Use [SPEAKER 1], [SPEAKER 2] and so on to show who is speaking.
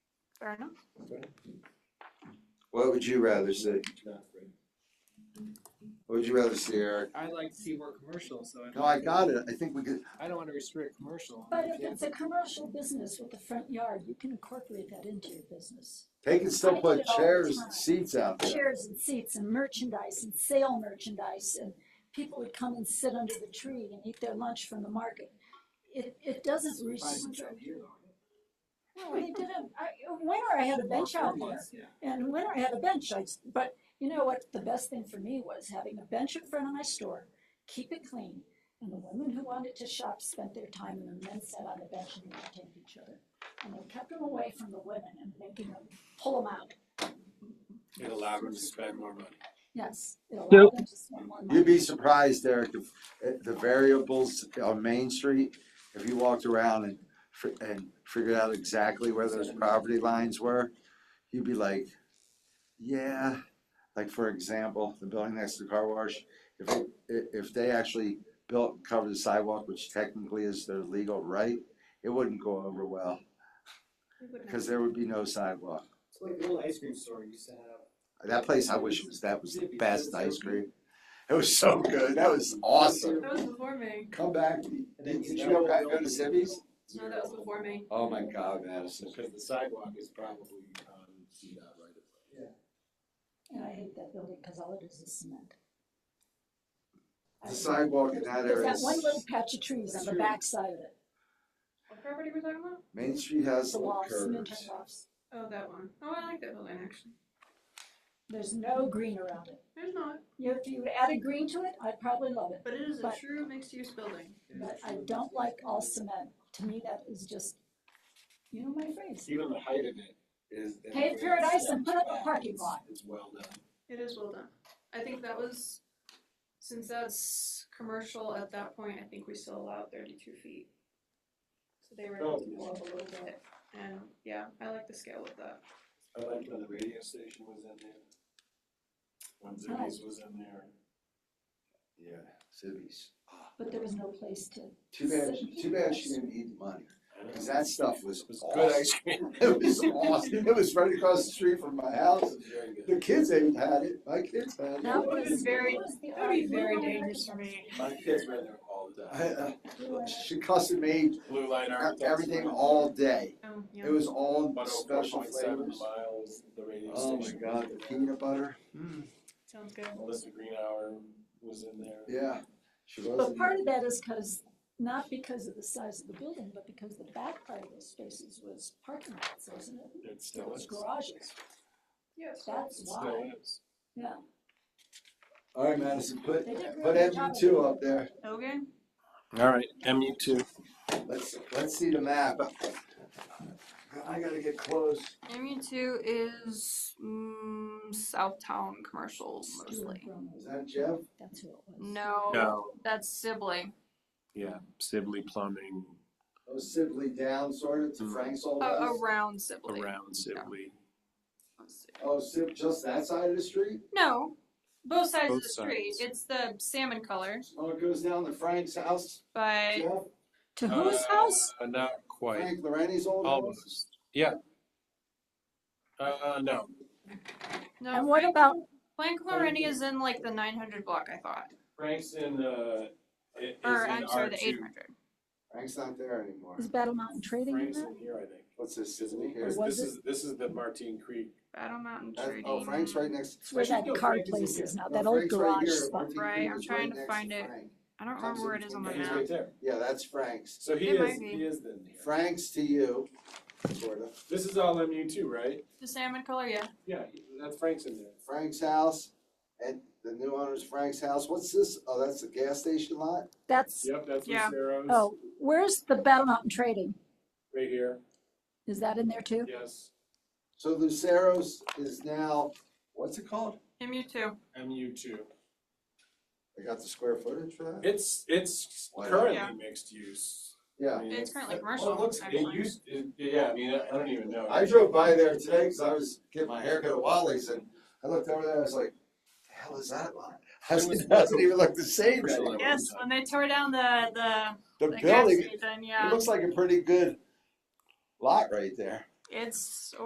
[SPEAKER 1] Fair enough.
[SPEAKER 2] What would you rather see? What would you rather see, Eric?
[SPEAKER 3] I like to see more commercial, so I.
[SPEAKER 2] No, Oh, I got it. I think we could,
[SPEAKER 3] I don't wanna restrict commercial.
[SPEAKER 4] But
[SPEAKER 3] I
[SPEAKER 4] if
[SPEAKER 3] can't-
[SPEAKER 4] it's a commercial business with a front yard, you can incorporate that into your business.
[SPEAKER 2] they can still
[SPEAKER 4] I
[SPEAKER 2] put
[SPEAKER 4] did all the
[SPEAKER 2] chairs and
[SPEAKER 4] time.
[SPEAKER 2] seats out there.
[SPEAKER 4] Chairs and seats and merchandise and sale merchandise and people would come and sit under the tree and eat their lunch from the market. It, it doesn't
[SPEAKER 3] Five months
[SPEAKER 4] restrict,
[SPEAKER 3] out here.
[SPEAKER 4] no, they didn't, I, in winter I had a bench
[SPEAKER 3] Four
[SPEAKER 4] out there.
[SPEAKER 3] months, yeah.
[SPEAKER 4] And when I had a bench, I, but you know what, the best thing for me was having a bench in front of my store, keep it clean. And the women who wanted to shop spent their time and the men sat on the bench and entertained each other. And they kept them away from the women and making them, pull them out,
[SPEAKER 5] It allowed them to spend more money.
[SPEAKER 4] yes. it allowed
[SPEAKER 6] Nope.
[SPEAKER 4] them to spend more money.
[SPEAKER 2] You'd be surprised, Eric, if, eh, the variables on Main Street, if you walked around and, fi- and figured out exactly where those property lines were, you'd be like, yeah, like for example, the building next to the car wash, if, it- i- if they actually built, and covered the sidewalk, which technically is their legal right, it wouldn't go over well, because there would be no sidewalk.
[SPEAKER 7] It's like the old ice cream store used to have.
[SPEAKER 2] That place, I wish it was, that was the best ice cream. It was so good, that was awesome.
[SPEAKER 1] That was before me.
[SPEAKER 2] Come back. Did you go back go to Sibby's?
[SPEAKER 1] No, that was before me.
[SPEAKER 2] Oh my God, Madison.
[SPEAKER 5] Because the sidewalk is probably on the uh, right of way.
[SPEAKER 4] And I hate that building, cause all it is is cement.
[SPEAKER 2] The sidewalk in that
[SPEAKER 4] There's
[SPEAKER 2] area,
[SPEAKER 4] that
[SPEAKER 2] is-
[SPEAKER 4] one little patch of trees on the backside of it,
[SPEAKER 1] What property were we talking about?
[SPEAKER 2] Main Street has
[SPEAKER 4] the
[SPEAKER 2] little
[SPEAKER 4] walls, cement
[SPEAKER 2] curves.
[SPEAKER 4] walls.
[SPEAKER 1] Oh, that one. Oh, I like that building actually.
[SPEAKER 4] There's no green around it.
[SPEAKER 1] There's not,
[SPEAKER 4] If you added green to it, I'd probably love it.
[SPEAKER 1] but it is a
[SPEAKER 4] But-
[SPEAKER 1] true mixed-use building.
[SPEAKER 4] But I don't like all cement, to me that is just, you know my phrase,
[SPEAKER 5] Even the height of it is.
[SPEAKER 4] Pave paradise and put up a parking lot.
[SPEAKER 5] It's well done.
[SPEAKER 1] It is well done. I think that was, since that's commercial at that point, I think we still allowed thirty-two feet. So they were able to go up a little bit, and yeah, I like the scale of that.
[SPEAKER 5] I liked when the radio station was in there. When
[SPEAKER 4] Oh.
[SPEAKER 5] Ziggy's was in there.
[SPEAKER 2] Yeah, Sibby's.
[SPEAKER 4] but there was no place to.
[SPEAKER 2] Too bad, too bad she didn't eat the money, cause that stuff was
[SPEAKER 5] It was good
[SPEAKER 2] awesome.
[SPEAKER 5] ice cream.
[SPEAKER 2] It was awesome. It was right across the street from my house.
[SPEAKER 5] Very good.
[SPEAKER 2] The kids ain't had it. My kids had
[SPEAKER 4] That
[SPEAKER 2] it.
[SPEAKER 1] would've been
[SPEAKER 4] was-
[SPEAKER 1] very-
[SPEAKER 4] was the
[SPEAKER 1] That would be
[SPEAKER 4] art.
[SPEAKER 1] very
[SPEAKER 4] We were
[SPEAKER 1] dangerous for
[SPEAKER 4] architects.
[SPEAKER 1] me.
[SPEAKER 5] My kids were in there all the time.
[SPEAKER 2] I-
[SPEAKER 4] We
[SPEAKER 2] I-
[SPEAKER 4] were-
[SPEAKER 2] She custom made
[SPEAKER 5] Blue light architects.
[SPEAKER 2] everything all day.
[SPEAKER 1] Oh, yeah.
[SPEAKER 2] It was all
[SPEAKER 5] But
[SPEAKER 2] special flavors.
[SPEAKER 5] miles, the radio
[SPEAKER 2] Oh my
[SPEAKER 5] station.
[SPEAKER 2] God, the peanut butter.
[SPEAKER 1] Sounds good.
[SPEAKER 5] Melissa Greenhour was in there.
[SPEAKER 2] Yeah. She was.
[SPEAKER 4] But part of that is because, not because of the size of the building, but because the back part of those spaces was parking lots, wasn't it?
[SPEAKER 5] It
[SPEAKER 4] It
[SPEAKER 5] still
[SPEAKER 4] was
[SPEAKER 5] is.
[SPEAKER 4] garages,
[SPEAKER 1] Yes.
[SPEAKER 4] that's
[SPEAKER 5] It
[SPEAKER 4] why,
[SPEAKER 5] still is.
[SPEAKER 4] yeah.
[SPEAKER 2] All right, Madison, put,
[SPEAKER 4] They did a
[SPEAKER 2] put
[SPEAKER 4] really good job
[SPEAKER 2] MU
[SPEAKER 4] of
[SPEAKER 2] two
[SPEAKER 4] it.
[SPEAKER 2] up there.
[SPEAKER 1] Okay.
[SPEAKER 5] All right, MU two.
[SPEAKER 2] Let's, let's see the map. I gotta get close.
[SPEAKER 1] Area two is mm, Southtown commercials mostly.
[SPEAKER 2] Is that Jeff?
[SPEAKER 4] That's who it was.
[SPEAKER 1] No,
[SPEAKER 5] No,
[SPEAKER 1] that's Sibley.
[SPEAKER 5] yeah, Sibley Plumbing
[SPEAKER 2] Oh, Sibley down sort of to
[SPEAKER 5] Hmm.
[SPEAKER 2] Frank's old
[SPEAKER 1] Uh,
[SPEAKER 2] house?
[SPEAKER 1] around Sibley.
[SPEAKER 5] around Sibley.
[SPEAKER 1] Let's see.
[SPEAKER 2] Oh, Sib, just that side of the street?
[SPEAKER 1] No, both sides of
[SPEAKER 5] Both
[SPEAKER 1] the street.
[SPEAKER 5] sides.
[SPEAKER 1] It's the salmon color,
[SPEAKER 2] Oh, it goes down to Frank's house?
[SPEAKER 1] but
[SPEAKER 2] Jeff?
[SPEAKER 4] To whose house?
[SPEAKER 5] Uh, Not quite,
[SPEAKER 2] Frank Lorenzi's old house?
[SPEAKER 5] almost, yeah. Uh, no,
[SPEAKER 1] no.
[SPEAKER 4] And what about
[SPEAKER 1] Frank Laurenti is in like the 900 block, I thought,
[SPEAKER 5] Frank's in, uh, it is in
[SPEAKER 1] or I'm sorry,
[SPEAKER 5] R
[SPEAKER 1] the
[SPEAKER 5] two.
[SPEAKER 1] 800.
[SPEAKER 2] Frank's not there anymore.
[SPEAKER 4] Is Battle Mountain Trading in
[SPEAKER 5] Frank's
[SPEAKER 4] that?
[SPEAKER 5] in here, I think.
[SPEAKER 2] What's this,
[SPEAKER 5] Isn't
[SPEAKER 2] Sibley
[SPEAKER 5] he?
[SPEAKER 2] here?
[SPEAKER 4] Or
[SPEAKER 5] This-
[SPEAKER 4] was
[SPEAKER 5] This is, this is the Martine Creek.
[SPEAKER 1] Battle Mountain
[SPEAKER 2] That-
[SPEAKER 1] Trading.
[SPEAKER 2] Oh, Frank's right next.
[SPEAKER 4] It's where that
[SPEAKER 2] No,
[SPEAKER 4] car
[SPEAKER 2] Frank's in
[SPEAKER 4] place
[SPEAKER 2] here.
[SPEAKER 4] is now,
[SPEAKER 2] No,
[SPEAKER 4] that old
[SPEAKER 2] Frank's right
[SPEAKER 4] garage
[SPEAKER 2] here.
[SPEAKER 4] spot.
[SPEAKER 2] Martin
[SPEAKER 1] Right,
[SPEAKER 2] Creek
[SPEAKER 1] I'm
[SPEAKER 2] is
[SPEAKER 1] trying to
[SPEAKER 2] next
[SPEAKER 1] find it.
[SPEAKER 2] Frank.
[SPEAKER 1] I don't remember where it is on the
[SPEAKER 2] Comes in
[SPEAKER 5] He's
[SPEAKER 1] map.
[SPEAKER 5] right there.
[SPEAKER 2] Yeah, that's Frank's.
[SPEAKER 5] So he
[SPEAKER 1] It might
[SPEAKER 5] is,
[SPEAKER 1] be.
[SPEAKER 5] he is in here.
[SPEAKER 2] Frank's to you, sort of.
[SPEAKER 5] This is all MU two, right?
[SPEAKER 1] The salmon color, yeah.
[SPEAKER 5] Yeah, that's Frank's in there.
[SPEAKER 2] Frank's house, and the new owner's Frank's house. What's this? Oh, that's the gas station lot?
[SPEAKER 4] That's,
[SPEAKER 5] Yep, that's where
[SPEAKER 1] Yeah.
[SPEAKER 5] Sarah's,
[SPEAKER 4] oh, where's the Battle Mountain Trading?
[SPEAKER 5] right here,
[SPEAKER 4] Is that in there too?
[SPEAKER 5] yes,
[SPEAKER 2] So Lucero's is now, what's it called?
[SPEAKER 1] MU two.
[SPEAKER 5] MU two.
[SPEAKER 2] I got the square footage for that?
[SPEAKER 5] It's, it's
[SPEAKER 2] Wow.
[SPEAKER 1] Yeah.
[SPEAKER 5] currently mixed use. I
[SPEAKER 2] Yeah.
[SPEAKER 5] mean,
[SPEAKER 1] It's currently
[SPEAKER 5] well,
[SPEAKER 1] commercial,
[SPEAKER 5] It looks, it
[SPEAKER 1] actually.
[SPEAKER 5] used, it, yeah, I mean, I I don't even know.
[SPEAKER 2] I drove by there today because I was getting my haircut at Wally's and I looked over there, I was like, the hell is that lot? I was- It doesn't even look the same anymore.
[SPEAKER 1] Yes, when they tore down the the,
[SPEAKER 2] The
[SPEAKER 1] the gas
[SPEAKER 2] building,
[SPEAKER 1] station,
[SPEAKER 2] it
[SPEAKER 1] yeah,
[SPEAKER 2] looks like a pretty good lot right there.
[SPEAKER 1] it's